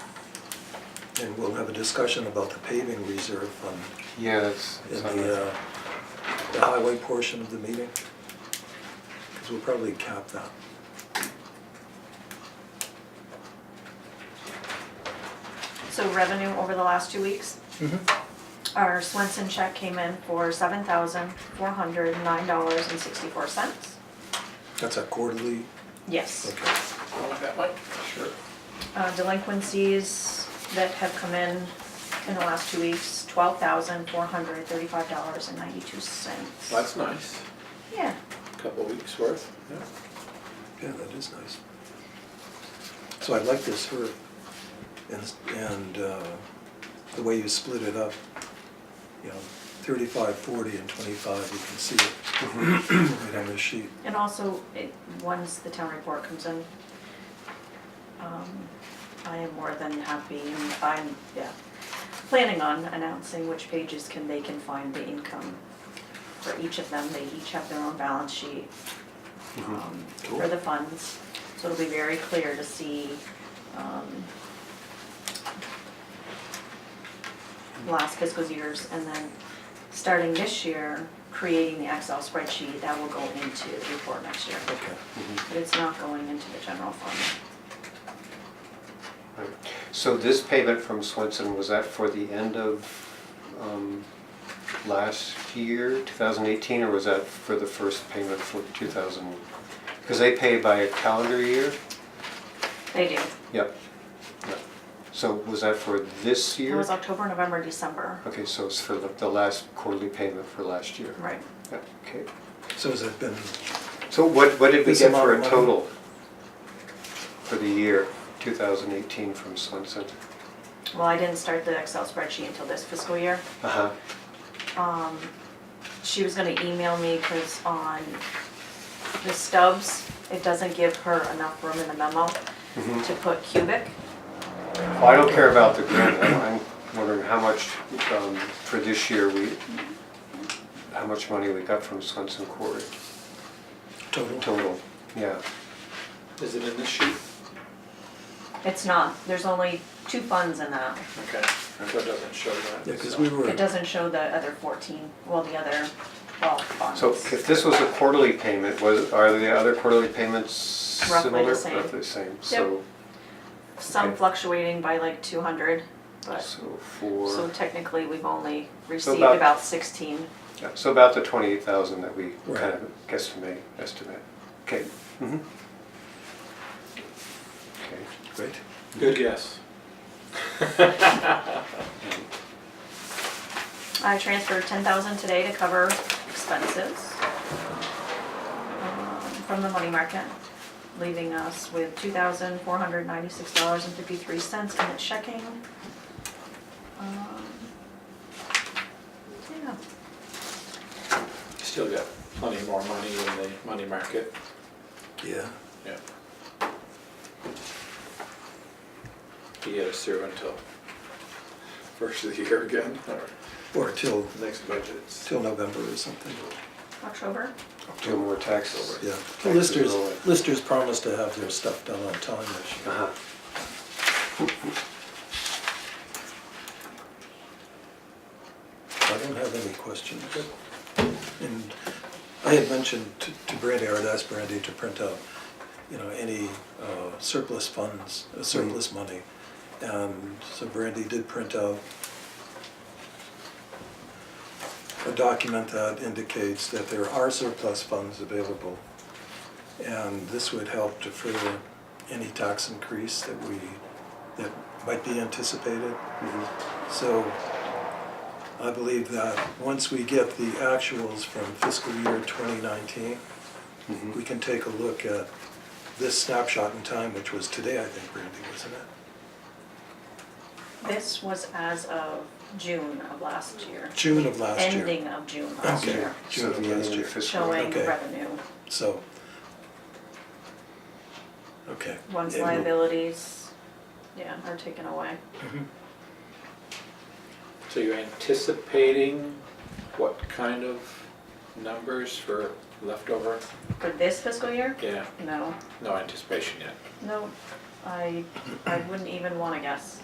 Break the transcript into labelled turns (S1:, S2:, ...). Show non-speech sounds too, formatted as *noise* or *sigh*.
S1: and we'll have a discussion about the paving reserve fund
S2: Yeah, that's,
S1: in
S2: that's on
S1: the,
S2: there.
S1: uh, the highway portion of the meeting. Because we'll probably cap that.
S3: So revenue over the last two weeks, our Swenson check came in for seven thousand four hundred nine dollars and sixty-four cents.
S1: That's a quarterly,
S3: Yes.
S1: okay.
S2: Sure.
S3: Uh, delinquencies that have come in in the last two weeks, twelve thousand four hundred thirty-five dollars and ninety-two cents.
S2: That's nice,
S3: Yeah,
S2: couple weeks worth, yeah.
S1: Yeah, that is nice. So I like this herb and, and uh, the way you split it up, you know, 35, 40, and 25, you can see it right on the sheet.
S3: and also, it, once the town report comes in, um, I am more than happy, and I'm, yeah, planning on announcing which pages can, they can find the income for each of them, they each have their own balance sheet um, for
S1: Cool.
S3: the funds, so it'll be very clear to see, um, last fiscal years, and then, starting this year, creating the Excel spreadsheet, that will go into the report next year,
S1: Okay.
S3: but it's not going into the general fund.
S4: Right. So this payment from Swenson, was that for the end of um, last year, 2018, or was that for the first payment for 2000? Because they pay by a calendar year?
S3: They do.
S4: Yep. Yep. So was that for this
S3: It
S4: year?
S3: was October, November, December,
S4: Okay, so it's for the the last quarterly payment for last year?
S3: right?
S4: Yep, okay.
S1: So has it been,
S4: So what, what did we
S1: This
S4: get for a
S1: amount of money?
S4: total for the year 2018 from Swenson?
S3: Well, I didn't start the Excel spreadsheet until this fiscal year.
S4: Uh-huh,
S3: She was gonna email me, cause on the stubs, it doesn't give her enough room in the memo
S4: Mm-hmm.
S3: to put cubic.
S4: Well, I don't care about the grant, I'm I'm wondering how much um, for this year we, how much money we got from Swenson Quarry
S1: total?
S4: total, yeah.
S2: Is it in this sheet?
S3: It's not, there's only two funds in that.
S2: Okay, so it doesn't show that.
S1: Yeah, because we were,
S3: It doesn't show the other fourteen, well, the other twelve funds.
S4: So if this was a quarterly payment, was, are the other quarterly payments
S3: Roughly
S4: similar?
S3: the same.
S4: Roughly the same, so,
S3: Some
S4: okay.
S3: fluctuating by like two hundred, but,
S4: so
S3: so
S4: for,
S3: technically, we've only received
S4: about-
S3: about sixteen.
S4: yeah, so about the twenty-eight thousand that we
S1: Right.
S4: kind of guesstimate, estimate, okay. mhm. Okay.
S1: great.
S2: Good guess.
S3: I transferred ten thousand today to cover expenses um, from the money market, leaving us with two thousand four hundred ninety-six dollars and fifty-three cents in the checking. Um, Yeah,
S2: Still got plenty more money in the money market.
S1: Yeah.
S2: Yeah. He had us through until first of the year again, *laughs* or
S1: Or till,
S2: next budget.
S1: till November or something.
S3: October,
S4: Two more taxes.
S1: Yeah. The Listers, listers promised to have their stuff done on time this year.
S4: Uh-huh.
S1: I don't have any questions. And I had mentioned to to Brandy, I had asked Brandy to print out, you know, any uh, surplus funds, uh, surplus money. And so Brandy did print out a document that indicates that there are surplus funds available. And this would help defer any tax increase that we, that might be anticipated. So I believe that once we get the actuals from fiscal year 2019,
S4: Mm-hmm.
S1: we can take a look at this snapshot in time, which was today, I think, Brandy, wasn't it?
S3: this was as of June of last year,
S1: June of last year.
S3: ending of June last
S1: Okay.
S3: year,
S4: So the end of the fiscal year.
S3: showing
S1: Okay.
S3: revenue,
S1: So, okay.
S3: once
S1: And we'll-
S3: liabilities, yeah, are taken away.
S2: So you're anticipating what kind of numbers for leftover?
S3: For this fiscal year,
S2: Yeah,
S3: no,
S2: no anticipation yet.
S3: No, I, I wouldn't even wanna guess.